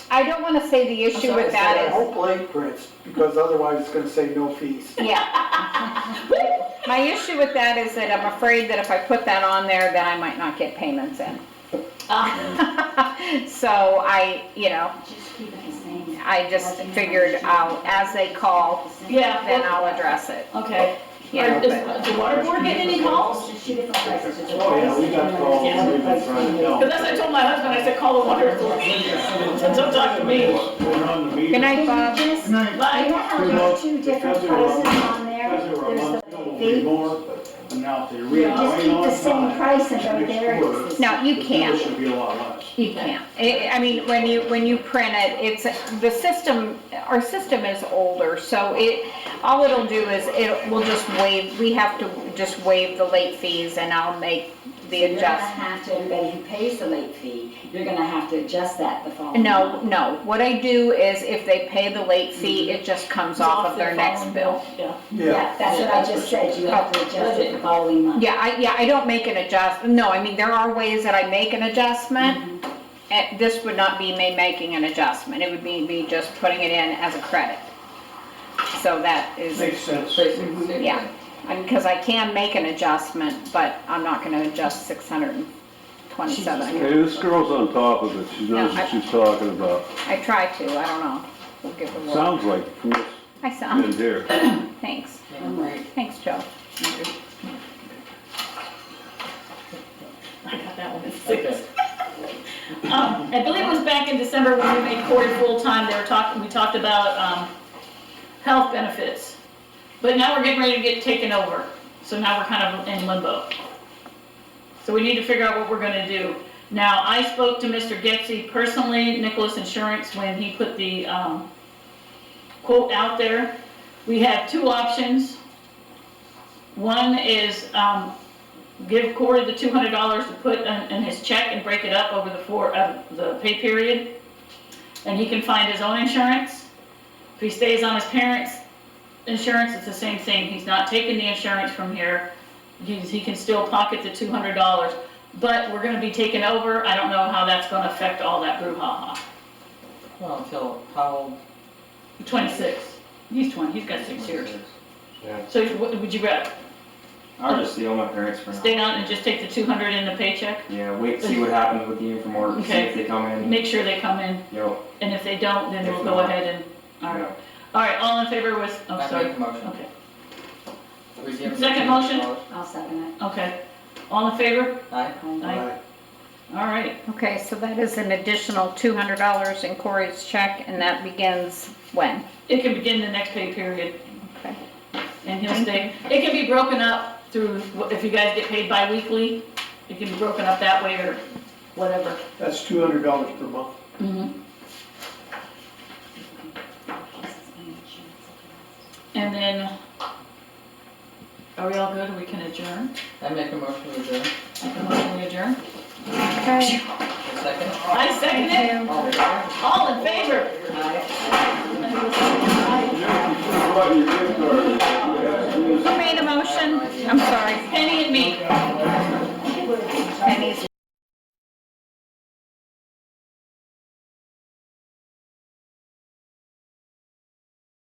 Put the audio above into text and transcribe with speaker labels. Speaker 1: I don't want to say the issue with that is,
Speaker 2: Don't blame Prince, because otherwise it's gonna say no fees.
Speaker 1: yeah. My issue with that is that I'm afraid that if I put that on there, then I might not get payments in. So I, you know,
Speaker 3: Just keep it the same.
Speaker 1: I just figured out as they call,
Speaker 4: Yeah.
Speaker 1: then I'll address it.
Speaker 4: Okay.
Speaker 1: you know,
Speaker 4: Are- Does
Speaker 1: but-
Speaker 4: does the water board get any calls?
Speaker 3: Just two different prices. it's a
Speaker 2: Oh, yeah, we got
Speaker 3: price,
Speaker 2: calls,
Speaker 3: and another
Speaker 2: we've been
Speaker 3: price,
Speaker 2: trying to
Speaker 3: and
Speaker 2: help.
Speaker 4: Because that's what I told my husband, I said, call the water authority. Don't talk to me.
Speaker 2: We're on the meter.
Speaker 1: Good night,
Speaker 3: Can
Speaker 1: Bob.
Speaker 3: you just, I
Speaker 4: Bye.
Speaker 3: have there's two different
Speaker 2: Because they were-
Speaker 3: prices on there,
Speaker 2: Because they were a
Speaker 3: there's
Speaker 2: month
Speaker 3: the
Speaker 2: ago, it'll be
Speaker 3: fee,
Speaker 2: more, but now if they read.
Speaker 3: just keep the same price and go there. it's the same.
Speaker 1: No, you
Speaker 2: The bill
Speaker 1: can't.
Speaker 2: should be a lot less.
Speaker 1: You can't. I, I mean, when you, when you print it, it's, the system, our system is older, so it, all it'll do is, it will just waive, we have to just waive the late fees and I'll make the
Speaker 3: You're gonna
Speaker 1: adjustment.
Speaker 3: have to, everybody who pays the late fee, you're gonna have to adjust that the following.
Speaker 1: No,
Speaker 3: month.
Speaker 1: no. What I do is if they pay the late fee, it just comes off of their next bill.
Speaker 4: Yeah.
Speaker 3: Yeah, that's what I just said, you have to adjust it the following month.
Speaker 1: Yeah, I, yeah, I don't make an adjust, no, I mean, there are ways that I make an adjustment.
Speaker 2: Mm-hmm.
Speaker 1: And this would not be me making an adjustment, it would be me just putting it in as a credit. So that is,
Speaker 2: Makes sense.
Speaker 1: yeah, because I can make an adjustment, but I'm not gonna adjust six hundred and twenty-seven.
Speaker 5: Hey, this girl's on top of it, she knows what she's talking about.
Speaker 1: I try to, I don't know, we'll give it a whirl.
Speaker 5: Sounds like from what's
Speaker 1: I
Speaker 5: in
Speaker 1: sound,
Speaker 5: here.
Speaker 1: thanks,
Speaker 3: I'm right.
Speaker 1: thanks, Joe.
Speaker 4: I got that one at six. Um, I believe it was back in December when we made Cory full-time, they were talking, we talked about, um, health benefits. But now we're getting ready to get taken over, so now we're kind of in limbo. So we need to figure out what we're gonna do. Now, I spoke to Mr. Getzey personally, Nicholas Insurance, when he put the, um, quote out there. We have two options. One is, um, give Corey the two hundred dollars to put in, in his check and break it up over the four, uh, the pay period. And he can find his own insurance. If he stays on his parents' insurance, it's the same thing. He's not taking the insurance from here. He's, he can still pocket the two hundred dollars. But we're gonna be taken over. I don't know how that's gonna affect all that brouhaha.
Speaker 6: Well, until how?
Speaker 4: Twenty-six. He's twenty, he's got six years. So what would you rather,
Speaker 7: I'll just deal with my parents for now.
Speaker 4: stay on and just take the two hundred in the paycheck?
Speaker 7: Yeah, wait, see what happens with the uniform order, see
Speaker 4: Okay.
Speaker 7: if they come in,
Speaker 4: Make sure they come in
Speaker 7: you know,
Speaker 4: And if they don't, then
Speaker 7: If
Speaker 4: we'll go
Speaker 7: not-
Speaker 4: ahead and, all
Speaker 7: you
Speaker 4: right,
Speaker 7: know.
Speaker 4: all right, all in favor with, I'm
Speaker 6: I
Speaker 4: sorry,
Speaker 6: make the motion.
Speaker 4: okay,
Speaker 6: We give them
Speaker 4: Second motion?
Speaker 6: $200.
Speaker 3: I'll second it.
Speaker 4: okay, all in favor?
Speaker 6: Aye.
Speaker 4: Aye. All right,
Speaker 1: Okay, so that is an additional two hundred dollars in Corey's check and that begins when?
Speaker 4: it can begin the next pay period,
Speaker 1: Okay.
Speaker 4: and he'll stay, it can be broken up through, if you guys get paid bi-weekly, it can be broken up that way or whatever.
Speaker 2: That's two hundred dollars per month.
Speaker 1: Mm-hmm.
Speaker 4: Mhm. And then, are we all good, we can adjourn?
Speaker 6: I make a motion to adjourn.
Speaker 4: I can motion we adjourn?
Speaker 1: Okay.
Speaker 6: A Second?
Speaker 4: I second it,
Speaker 6: All in favor?
Speaker 4: all in favor?
Speaker 1: Who made a motion? I'm sorry.
Speaker 4: Penny